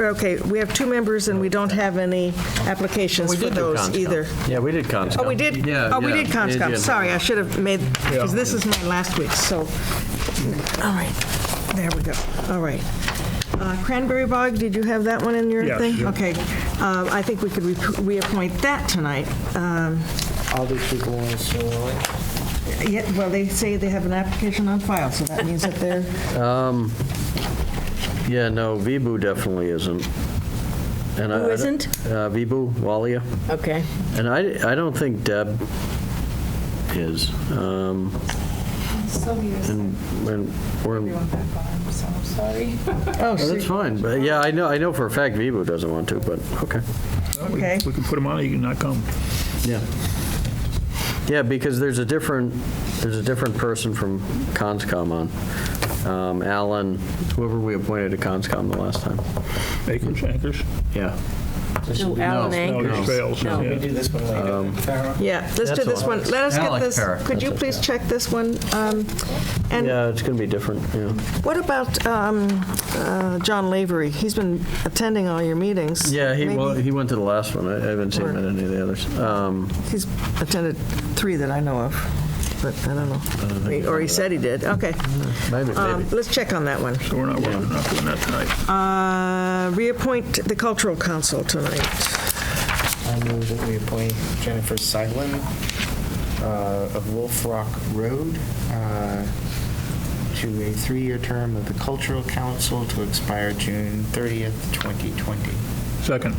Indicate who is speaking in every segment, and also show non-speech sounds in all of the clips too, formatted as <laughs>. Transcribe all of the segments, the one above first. Speaker 1: Okay, we have two members and we don't have any applications
Speaker 2: We
Speaker 1: for
Speaker 2: did do
Speaker 1: those
Speaker 2: Conscom.
Speaker 1: either.
Speaker 3: Yeah, we did Conscom.
Speaker 1: Oh, we did,
Speaker 2: Yeah,
Speaker 1: oh, we
Speaker 2: yeah,
Speaker 1: did
Speaker 2: yeah, yeah.
Speaker 1: Conscom, sorry, I should have made, because this is my last week, so, all right, there we go, all right. Uh, Cranberry Bog, did you have that one in your
Speaker 4: Yes.
Speaker 1: thing?
Speaker 4: Yeah.
Speaker 1: Okay, Uh, I think we could re- reappoint that tonight. Um,
Speaker 5: All these people want to sue, right?
Speaker 1: yeah, Well, they say they have an application on file, so that means that they're,
Speaker 3: Yeah, no, Vibu definitely isn't.
Speaker 6: Who isn't?
Speaker 3: uh, Vibu, Walia.
Speaker 6: Okay.
Speaker 3: And I, I don't think Deb is. Um,
Speaker 7: Sylvia's
Speaker 3: And when we're,
Speaker 7: everyone back on, so I'm sorry.
Speaker 1: oh,
Speaker 3: that's
Speaker 1: so-
Speaker 3: fine. But yeah, I know, I know for a fact Vibu doesn't want to, but okay.
Speaker 1: okay.
Speaker 4: We can put them on, you can not come.
Speaker 3: Yeah. Yeah, because there's a different, there's a different person from Conscom on. Um, Alan, whoever we appointed to Conscom the last time.
Speaker 4: Acres, anchors?
Speaker 3: Yeah.
Speaker 6: No, Alan
Speaker 4: No,
Speaker 6: Anchor.
Speaker 4: there's trails.
Speaker 6: No.
Speaker 4: yeah.
Speaker 5: We do this one later. Farrah?
Speaker 1: Yeah, let's do
Speaker 3: That's
Speaker 1: this
Speaker 3: all.
Speaker 1: one. Let us get
Speaker 2: Alec
Speaker 1: this,
Speaker 2: Parra.
Speaker 1: could you please check this one? Um, And
Speaker 3: Yeah, it's going to be different, yeah.
Speaker 1: what about um, uh, John Lavery? He's been attending all your meetings.
Speaker 3: Yeah, he, well,
Speaker 1: Maybe
Speaker 3: he went to the last one. I I haven't seen him at any of the others. Um,
Speaker 1: He's attended three that I know of, but I don't
Speaker 3: Uh,
Speaker 1: know. Or he said he did, okay.
Speaker 3: Maybe,
Speaker 1: Um,
Speaker 3: maybe.
Speaker 1: Let's check on that one.
Speaker 4: So we're not, we're not doing that tonight.
Speaker 1: Uh, Reappoint the Cultural Council tonight.
Speaker 5: I move that we appoint Jennifer Seidlin uh, of Wolf Rock Road uh, to a three-year term of the Cultural Council to expire June 30th, 2020.
Speaker 4: Second,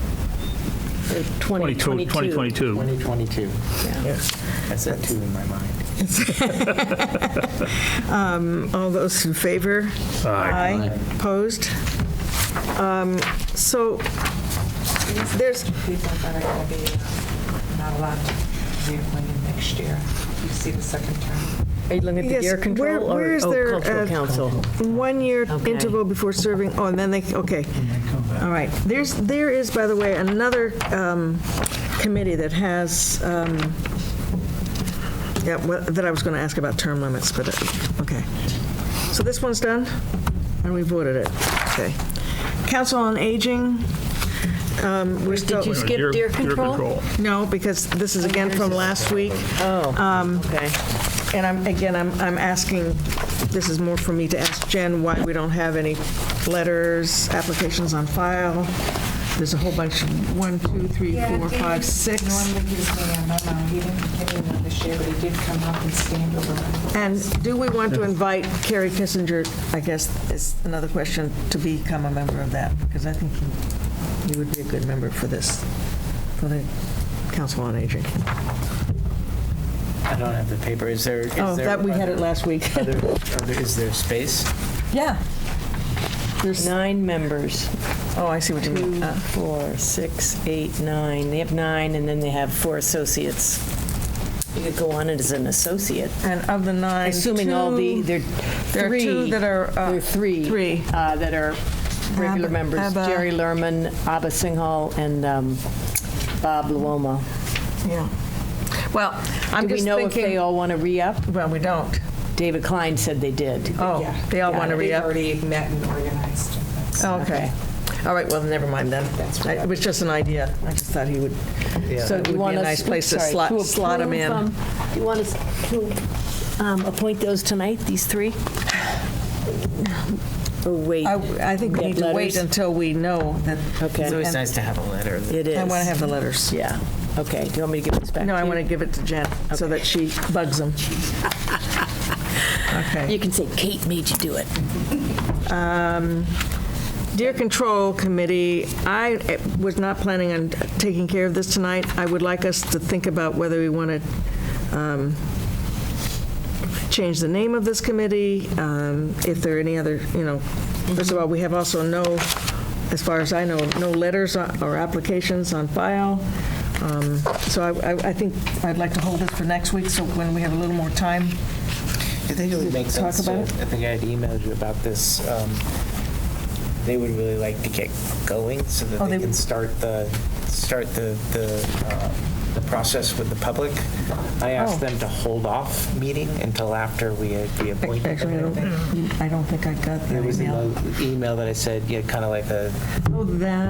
Speaker 4: 22, 2022.
Speaker 5: 2022. I said two in my mind.
Speaker 1: All those in favor? Aye. Opposed? Um, So there's,
Speaker 7: People that are going to be uh, not allowed to reappointed next year. You see the second term.
Speaker 6: Are you looking at the
Speaker 1: Yes,
Speaker 6: Deer
Speaker 1: where-
Speaker 6: Control
Speaker 1: where
Speaker 6: or
Speaker 1: is there,
Speaker 6: oh,
Speaker 1: uh,
Speaker 6: Cultural Council?
Speaker 1: One-year
Speaker 6: Okay.
Speaker 1: interval before serving, oh, and then they, okay. All right. There's, there is, by the way, another um, committee that has, um, yeah, well, that I was going to ask about term limits, but, uh, okay. So this one's done, and we voted it. Okay. Council on Aging, um, we're still,
Speaker 6: you skip deer control?
Speaker 1: no, because this is again from last week. Um,
Speaker 6: Oh, okay.
Speaker 1: And I'm, again, I'm, I'm asking, this is more for me to ask Jen why we don't have any letters, applications on file. There's a whole bunch, one, two, three, four, five, six.
Speaker 7: Normally gives me a memo. He didn't give me one this year, but he did come up and stand over. my-
Speaker 1: And do we want to invite Carrie Kissinger, I guess is another question, to become a member of that? Because I think you- you would be a good member for this, for the Council on Aging.
Speaker 5: I don't have the paper. Is there? is
Speaker 1: Oh,
Speaker 5: there-
Speaker 1: that, we had it last week.
Speaker 5: are there- are there- Is there space?
Speaker 1: <laughs> Yeah. There's,
Speaker 6: Nine members.
Speaker 1: oh, I see what you mean.
Speaker 6: Two,
Speaker 1: Uh,
Speaker 6: four, six, eight, nine. They have nine, and then they have four associates. You could go on it as an associate,
Speaker 1: And of the nine,
Speaker 6: assuming all the,
Speaker 1: two-
Speaker 6: there
Speaker 1: There
Speaker 6: are
Speaker 1: are
Speaker 6: three.
Speaker 1: two that are, uh,
Speaker 6: There are three.
Speaker 1: three.
Speaker 6: uh, That are regular
Speaker 1: Abba-
Speaker 6: members.
Speaker 1: Abba.
Speaker 6: Jerry Lerman, Abba Singhal, and um, Bob Luoma.
Speaker 1: Yeah. Well, I'm
Speaker 6: Do we
Speaker 1: just
Speaker 6: know if they
Speaker 1: thinking,
Speaker 6: all want to re-up?
Speaker 1: well, we don't.
Speaker 6: David Klein said they did.
Speaker 1: Oh,
Speaker 7: Yeah.
Speaker 1: they all
Speaker 7: Yeah,
Speaker 1: want to
Speaker 7: they've
Speaker 1: re-up?
Speaker 7: already met and organized. That's-
Speaker 1: Oh, Okay. All right, well, never mind then. I- It was just an idea. I just thought he would, so it would
Speaker 6: Do
Speaker 1: be
Speaker 6: you
Speaker 1: a
Speaker 6: want us-
Speaker 1: nice place to
Speaker 6: sorry,
Speaker 1: slot, slot him
Speaker 6: approve,
Speaker 1: in.
Speaker 6: um, Do you want us to um, appoint those tonight, these three? Or Oh, wait?
Speaker 1: I think we
Speaker 6: Get
Speaker 1: need to wait
Speaker 6: letters?
Speaker 1: until we know that,
Speaker 5: It's
Speaker 6: Okay,
Speaker 5: always nice to have a letter. that-
Speaker 6: it is.
Speaker 1: I want to have the letters.
Speaker 6: Yeah, okay. Do you want me to give this back?
Speaker 1: No,
Speaker 6: to
Speaker 1: I
Speaker 6: you?
Speaker 1: want to give it to Jen so that she bugs
Speaker 6: <laughs>
Speaker 1: them. Okay.
Speaker 6: You can say Kate made you do it.
Speaker 1: Deer Control Committee, I eh, was not planning on taking care of this tonight. I would like us to think about whether we want to um, change the name of this committee, um, if there are any other, you know, first of all, we have also no, as far as I know, no letters on- or applications on file. Um, So I- I I think I'd like to hold this for next week, so when we have a little more time.
Speaker 5: I think it would make
Speaker 1: Talk
Speaker 5: sense.
Speaker 1: about
Speaker 5: to- I think I had emailed you about this. um, They would really like to get going so
Speaker 1: Oh,
Speaker 5: that they
Speaker 1: they-
Speaker 5: can start the, start the, the um, the process with the public. I asked
Speaker 1: Oh.
Speaker 5: them to hold off meeting until after we had reappointed.
Speaker 1: Actually, I
Speaker 5: them.
Speaker 1: don't, I don't think I got
Speaker 5: There
Speaker 1: the
Speaker 5: was an
Speaker 1: email.
Speaker 5: email that I said, yeah, kind of like a,
Speaker 1: Oh, that.